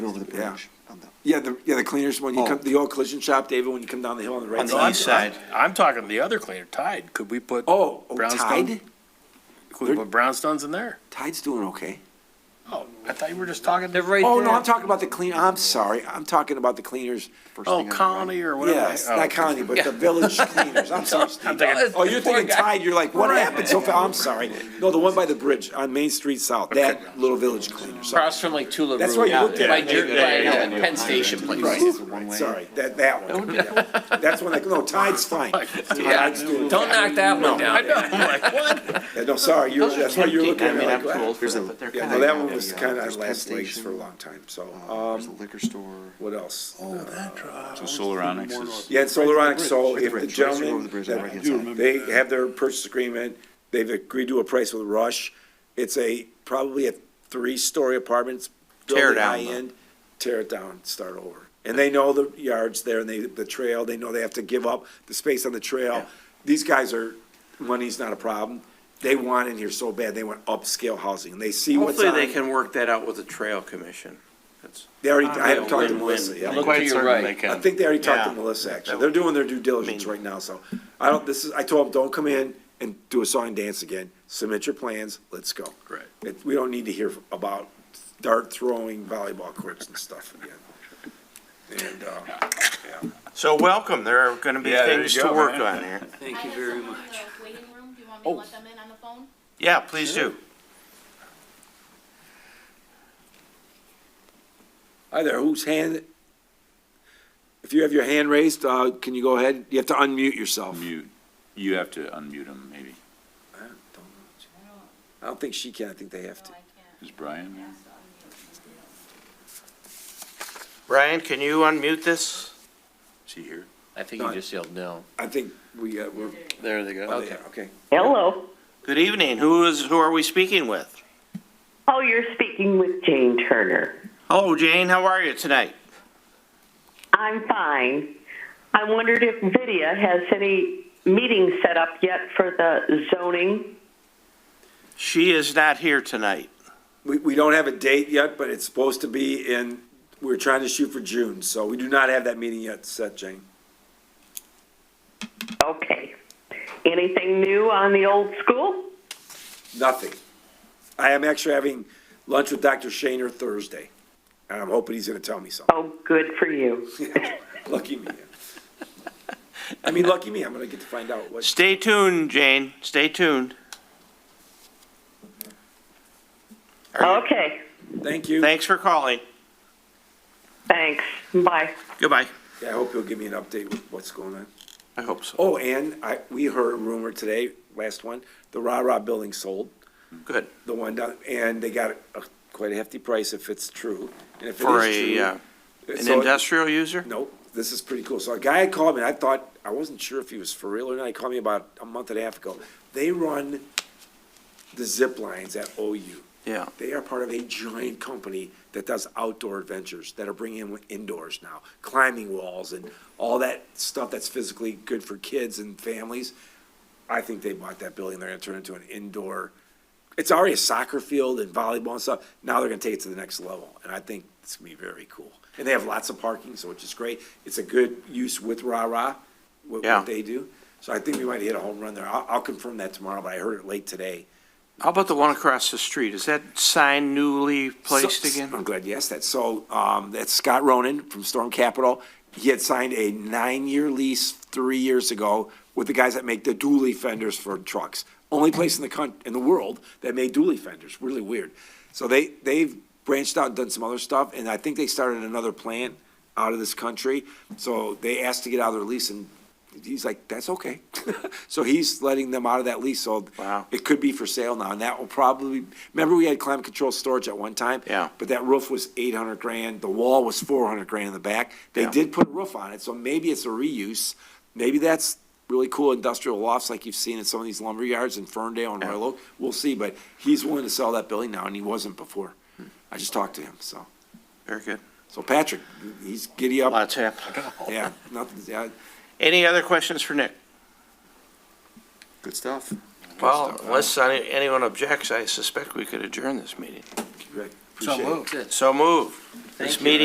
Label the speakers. Speaker 1: Over the
Speaker 2: Yeah.
Speaker 1: bridge. on the-
Speaker 2: Yeah, the, yeah, the cleaners, when you
Speaker 1: Oh.
Speaker 2: come, the old collision shop, David, when you come down the hill on the right
Speaker 3: On the
Speaker 2: side.
Speaker 3: east side.
Speaker 4: I'm talking the other cleaner, Tide. Could we put?
Speaker 2: Oh, oh,
Speaker 4: brownstone?
Speaker 2: Tide?
Speaker 4: Could we put brownstones in there?
Speaker 2: Tide's doing okay.
Speaker 4: Oh, I thought you were just talking,
Speaker 3: They're right
Speaker 2: Oh, no,
Speaker 3: there.
Speaker 2: I'm talking about the clean, I'm sorry, I'm talking about the cleaners.
Speaker 1: first thing
Speaker 4: oh,
Speaker 1: on the right.
Speaker 4: Colony or whatever.
Speaker 2: Yes,
Speaker 4: Oh,
Speaker 2: not county, but the village cleaners, I'm sorry.
Speaker 4: I'm thinking,
Speaker 2: Oh, you're thinking Tide, you're like, what happened so far? I'm sorry. No, the one by the bridge on Main Street South, that little village cleaner, sorry.
Speaker 3: Across from like Tula
Speaker 2: That's
Speaker 3: Rue,
Speaker 2: why you looked at
Speaker 3: by
Speaker 2: it.
Speaker 3: Jer-
Speaker 4: Yeah, yeah,
Speaker 3: by, uh, Penn Station place.
Speaker 2: Right, right, sorry, that, that one. Yeah. That's when I, no, Tide's fine. Tide's doing
Speaker 3: Don't
Speaker 2: fine.
Speaker 3: knock that one
Speaker 4: I
Speaker 3: down.
Speaker 4: know, I'm like, what?
Speaker 2: Yeah, No, sorry, you're, that's why you're looking at me like, wow.
Speaker 1: There's a-
Speaker 2: Yeah, no, that one was
Speaker 1: Yeah,
Speaker 2: kind
Speaker 1: there's
Speaker 2: of last
Speaker 1: Penn
Speaker 2: legs
Speaker 1: Station,
Speaker 2: for a long time, so,
Speaker 1: uh, There's a
Speaker 2: um,
Speaker 1: liquor store.
Speaker 2: what else?
Speaker 5: So Solaronics is,
Speaker 2: Yeah, and Solaronic, so if the
Speaker 1: Bridge, right over
Speaker 2: gentleman,
Speaker 1: the bridge on the right-hand
Speaker 2: that-
Speaker 1: side.
Speaker 2: they have their purchase agreement, they've agreed to a price with Rush. It's a, probably a three-story apartment, it's
Speaker 3: Tear
Speaker 2: building
Speaker 3: down, though.
Speaker 2: high-end, tear it down, start over. And they know the yards there, and they, the trail, they know they have to give up the space on the trail. These guys are, money's not a problem, they want in here so bad, they want upscale housing, and they see what's
Speaker 6: Hopefully,
Speaker 2: on.
Speaker 6: they can work that out with the trail commission. That's,
Speaker 2: They already, I haven't talked to Melissa
Speaker 6: Win-win.
Speaker 2: yet.
Speaker 4: Look to
Speaker 5: quite
Speaker 4: your
Speaker 5: certain
Speaker 4: right.
Speaker 5: they
Speaker 2: I
Speaker 5: can.
Speaker 2: think they already talked to
Speaker 6: Yeah.
Speaker 2: Melissa, actually. They're doing their due diligence right now, so I don't, this is, I told them, don't come in and do a song and dance again. Submit your plans, let's go.
Speaker 4: Right.
Speaker 2: It, we don't need to hear about dart throwing volleyball courts and stuff again. And, uh,
Speaker 6: so welcome, there are gonna be
Speaker 5: Yeah, there
Speaker 6: things
Speaker 5: you
Speaker 6: to
Speaker 5: go,
Speaker 6: work
Speaker 5: man.
Speaker 6: on here.
Speaker 7: Thank you very much. Oh. Waiting room, do you want me to let them in on the phone?
Speaker 6: Yeah, please do.
Speaker 2: hi there, whose hand? If you have your hand raised, uh, can you go ahead? You have to unmute yourself.
Speaker 5: Mute, you have to unmute him, maybe.
Speaker 2: I don't know. I don't think she can, I think they have to.
Speaker 5: Is Brian there?
Speaker 6: Ryan, can you unmute this?
Speaker 5: Is he here?
Speaker 3: I think you just yelled no.
Speaker 2: I think we, uh, we're,
Speaker 3: There they go.
Speaker 2: oh, yeah, okay.
Speaker 8: Hello.
Speaker 6: Good evening, who is, who are we speaking with?
Speaker 8: Oh, you're speaking with Jane Turner.
Speaker 6: Hello, Jane, how are you tonight?
Speaker 8: I'm fine. I wondered if Vidya has any meetings set up yet for the zoning.
Speaker 6: She is not here tonight.
Speaker 2: We, we don't have a date yet, but it's supposed to be in, we're trying to shoot for June, so we do not have that meeting yet set, Jane.
Speaker 8: Okay. Anything new on the old school?
Speaker 2: Nothing. I am actually having lunch with Dr. Shaner Thursday, and I'm hoping he's gonna tell me something.
Speaker 8: Oh, good for you.
Speaker 2: Lucky me. I mean, lucky me, I'm gonna get to find out what,
Speaker 6: Stay tuned, Jane, stay tuned. Are you-
Speaker 8: Okay.
Speaker 2: thank you.
Speaker 6: Thanks for calling,
Speaker 8: Thanks. Bye.
Speaker 6: goodbye.
Speaker 2: Yeah, I hope he'll give me an update with what's going on.
Speaker 6: I hope so,
Speaker 2: Oh, and I, we heard a rumor today, last one, the Rah Rah building sold.
Speaker 6: good,
Speaker 2: the one down, and they got a quite a hefty price if it's true. And if it
Speaker 6: for
Speaker 2: is
Speaker 6: a,
Speaker 2: true,
Speaker 6: uh, an
Speaker 2: so-
Speaker 6: industrial user?
Speaker 2: Nope, this is pretty cool. So a guy had called me, and I thought, I wasn't sure if he was for real or not. He called me about a month and a half ago. They run the zip lines at OU.
Speaker 6: Yeah.
Speaker 2: They are part of a giant company that does outdoor adventures that are bringing in indoors now, climbing walls and all that stuff that's physically good for kids and families. I think they bought that building. They're going to turn it into an indoor. It's already a soccer field and volleyball and stuff. Now they're going to take it to the next level, and I think it's going to be very cool. And they have lots of parking, so which is great. It's a good use with rah rah, what,
Speaker 6: Yeah.
Speaker 2: what they do. So I think we might hit a home run there. I'll, I'll confirm that tomorrow, but I heard it late today.
Speaker 6: How about the one across the street? Is that sign newly placed
Speaker 2: So-
Speaker 6: again?
Speaker 2: I'm glad you asked that. So, um, that's Scott Ronan from Storm Capital. He had signed a nine-year lease three years ago with the guys that make the dually fenders for trucks. Only place in the coun, in the world that made dually fenders. Really weird. So they, they've branched out and done some other stuff, and I think they started another plant out of this country. So they asked to get out of their lease, and he's like, that's okay. So he's letting them out of that lease, so
Speaker 6: Wow.
Speaker 2: it could be for sale now, and that will probably, remember we had climate control storage at one time?
Speaker 6: Yeah.
Speaker 2: But that roof was eight hundred grand, the wall was four hundred grand in the back. They
Speaker 6: Yeah.
Speaker 2: did put a roof on it, so maybe it's a reuse. Maybe that's really cool industrial lofts like you've seen in some of these lumber yards in Ferndale and Royal Oak. We'll see, but he's willing to sell that building now, and he wasn't before.
Speaker 6: Hmm.
Speaker 2: I just talked to him, so.
Speaker 6: Very good.
Speaker 2: So Patrick, he's giddy up,
Speaker 6: Lots happening.
Speaker 2: yeah, nothing, yeah,
Speaker 6: Any other questions for Nick?
Speaker 1: Good stuff.
Speaker 6: Well, unless any- anyone objects, I suspect we could adjourn this meeting.
Speaker 2: Greg, appreciate it.
Speaker 6: So move. This
Speaker 3: you.
Speaker 6: meeting